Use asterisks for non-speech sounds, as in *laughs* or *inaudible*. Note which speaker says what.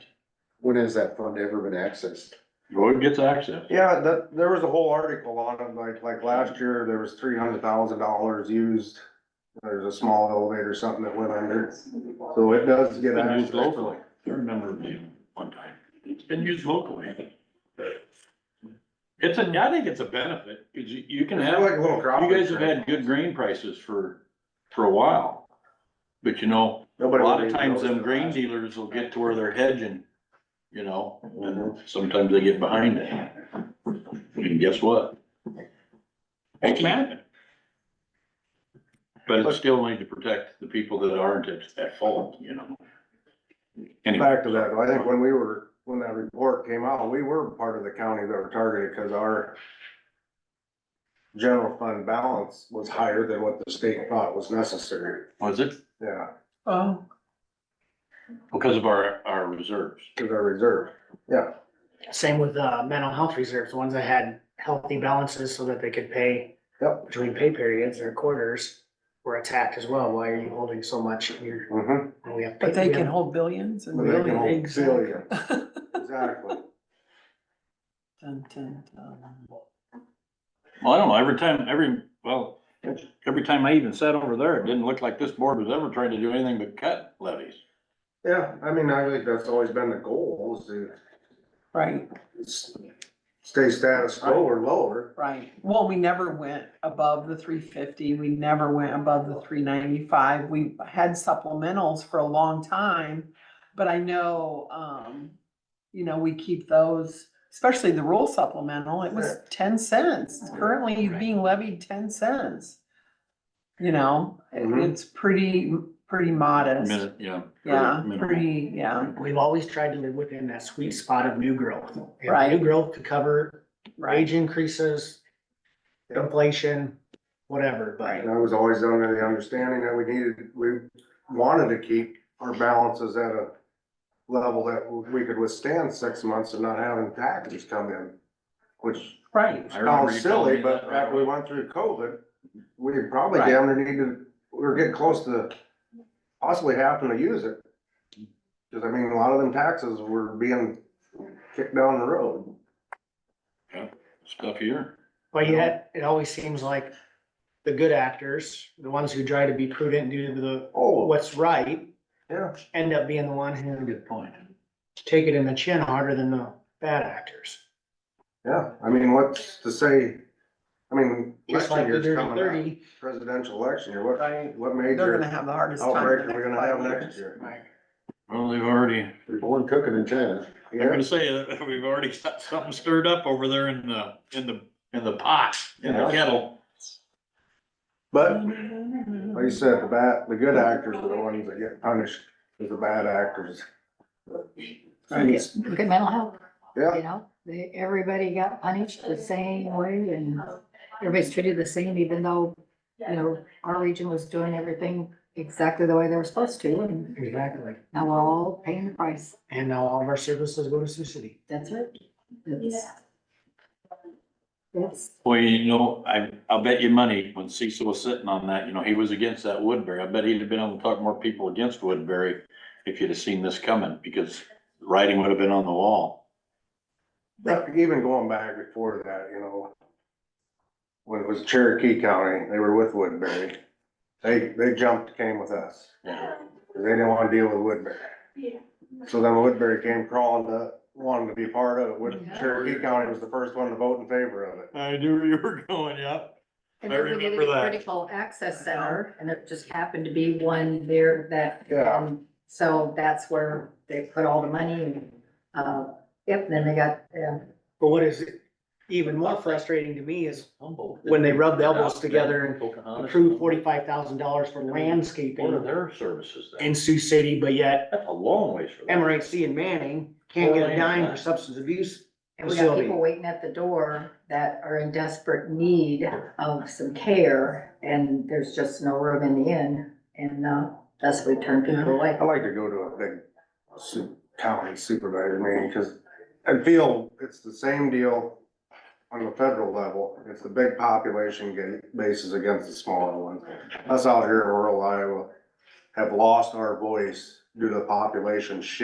Speaker 1: When has that fund ever been accessed?
Speaker 2: Road gets access.
Speaker 3: Yeah, that, there was a whole article on it, like, like last year, there was three hundred thousand dollars used. There's a small elevator, something that went under, so it does get
Speaker 2: Been used
Speaker 3: access.
Speaker 2: locally. I remember being one time. It's been used locally. It's a, I think it's a benefit, cause you, you can
Speaker 3: It's
Speaker 2: have,
Speaker 3: Like a
Speaker 2: you
Speaker 3: little crop.
Speaker 2: guys have had good grain prices for, for a while. But you know, a lot of times them grain dealers will get to where they're hedging, you know, and sometimes they get behind it. And guess what? It's man. But it's still need to protect the people that aren't at, at fault, you know? Anyway.
Speaker 3: Back to that, I think when we were, when that report came out, we were part of the county that were targeted, cause our general fund balance was higher than what the state thought was necessary,
Speaker 2: Was it?
Speaker 3: yeah,
Speaker 2: Oh. Because of our, our reserves.
Speaker 3: cause our reserve.
Speaker 4: Same with uh, mental health reserves, the ones that had healthy balances so that they could pay
Speaker 3: Yep.
Speaker 4: between pay periods or quarters were attacked as well. Why are you holding so much? You're,
Speaker 3: Mm-hmm.
Speaker 4: we have.
Speaker 5: But they
Speaker 4: we
Speaker 5: can
Speaker 4: have-
Speaker 5: hold billions and
Speaker 3: But they can
Speaker 5: billions.
Speaker 3: hold
Speaker 5: Exactly.
Speaker 3: Exactly.
Speaker 5: *laughs* Dun, dun, dun.
Speaker 2: Well, I don't know, every time, every, well, every time I even sat over there, it didn't look like this board was ever trying to do anything but cut levies.
Speaker 3: Yeah, I mean, I think that's always been the goal, is to
Speaker 5: Right,
Speaker 3: s- stay status quo or lower.
Speaker 5: right. Well, we never went above the three fifty. We never went above the three ninety-five. We had supplementals for a long time. But I know, um, you know, we keep those, especially the rural supplemental, it was ten cents.
Speaker 3: Mm-hmm.
Speaker 5: Currently being levied ten cents. You know, it-
Speaker 3: Mhm.
Speaker 5: it's pretty, pretty modest.
Speaker 2: Minute, yeah.
Speaker 5: Yeah,
Speaker 2: minimal.
Speaker 5: pretty, yeah,
Speaker 4: We've always tried to live within that sweet spot of new growth. If
Speaker 5: Right.
Speaker 4: New growth could cover
Speaker 5: right.
Speaker 4: wage increases,
Speaker 3: Yep.
Speaker 4: inflation, whatever, but
Speaker 3: And I was always under the understanding that we needed, we wanted to keep our balances at a level that we could withstand six months and not having taxes come in, which
Speaker 5: Right,
Speaker 2: I remember you
Speaker 3: sounds
Speaker 2: telling
Speaker 3: silly,
Speaker 2: me
Speaker 3: but
Speaker 2: that.
Speaker 3: after we went through COVID, we probably
Speaker 5: Right.
Speaker 3: damn near needed, we were getting close to possibly having to use it. Cause I mean, a lot of them taxes were being kicked down the road.
Speaker 2: Stuff here.
Speaker 4: But yet, it always seems like the good actors, the ones who try to be prudent and do the,
Speaker 3: Oh,
Speaker 4: what's right,
Speaker 3: yeah,
Speaker 4: end up being the one who
Speaker 2: Good point.
Speaker 4: take it in the chin harder than the bad actors.
Speaker 3: yeah. I mean, what's to say? I mean,
Speaker 4: Just
Speaker 3: election
Speaker 4: like the
Speaker 3: year's
Speaker 4: dirty
Speaker 3: coming up,
Speaker 4: thirty.
Speaker 3: presidential election year, what,
Speaker 5: right.
Speaker 3: what
Speaker 5: They're
Speaker 3: major
Speaker 5: gonna have the hardest time.
Speaker 3: outbreak
Speaker 5: the
Speaker 3: are we
Speaker 5: next
Speaker 3: gonna
Speaker 5: five
Speaker 3: have
Speaker 5: years.
Speaker 3: next year?
Speaker 4: Right.
Speaker 2: Well, they've already, I'm
Speaker 1: There's one cooking in China.
Speaker 2: gonna say, that *laughs* we've already got something stirred up over there in the, in the, in the pot, in the
Speaker 3: Yeah.
Speaker 2: kettle.
Speaker 3: But like you said, the bad, the good actors are the ones that get punished, 'cause the bad actors.
Speaker 5: Right.
Speaker 6: Look at mental health,
Speaker 3: Yeah,
Speaker 6: you know, they, everybody got punished the same way and everybody's treated the same, even though, you know, our region was doing everything exactly the way they were supposed to, and
Speaker 4: Exactly.
Speaker 6: now we're all paying the price,
Speaker 4: And now all of our services go to Sioux City.
Speaker 6: that's it. It's- It's,
Speaker 2: Well, you know, I, I'll bet you money, when Cecil was sitting on that, you know, he was against that Woodbury. I bet he'd have been able to talk more people against Woodbury if you'd have seen this coming, because writing would have been on the wall.
Speaker 3: but even going back before that, you know, when it was Cherokee County, they were with Woodbury. They, they jumped, came with us,
Speaker 2: Yeah.
Speaker 3: 'cause they didn't wanna deal with Woodbury. So then Woodbury came crawling to, wanted to be part of it, Wood- Cherokee County was the first one to vote in favor of it.
Speaker 2: I knew where you were going, yeah.
Speaker 6: and
Speaker 2: I
Speaker 6: then we needed
Speaker 2: remember
Speaker 6: a
Speaker 2: that.
Speaker 6: critical access center, and it just happened to be one there that,
Speaker 3: Yeah,
Speaker 6: um, so that's where they put all the money and, uh, yep, then they got, um,
Speaker 4: But what is even more frustrating to me is when they rubbed elbows together and
Speaker 2: and
Speaker 4: approved forty-five thousand dollars for
Speaker 2: What are
Speaker 4: landscaping
Speaker 2: their services then?
Speaker 4: in Sioux City, but yet
Speaker 2: That's a long ways for them.
Speaker 4: MRHC and Manning can't get a dime for substance abuse.
Speaker 6: And we got
Speaker 4: facility.
Speaker 6: people waiting at the door that are in desperate need of some care, and there's just no room in the inn, and, uh, thus we turn people away.
Speaker 3: I like to go to a big su- county supervisor meeting, cause I feel it's the same deal on the federal level. It's the big population ga- bases against the smaller ones. Us out here in rural Iowa have lost our voice due to population shift.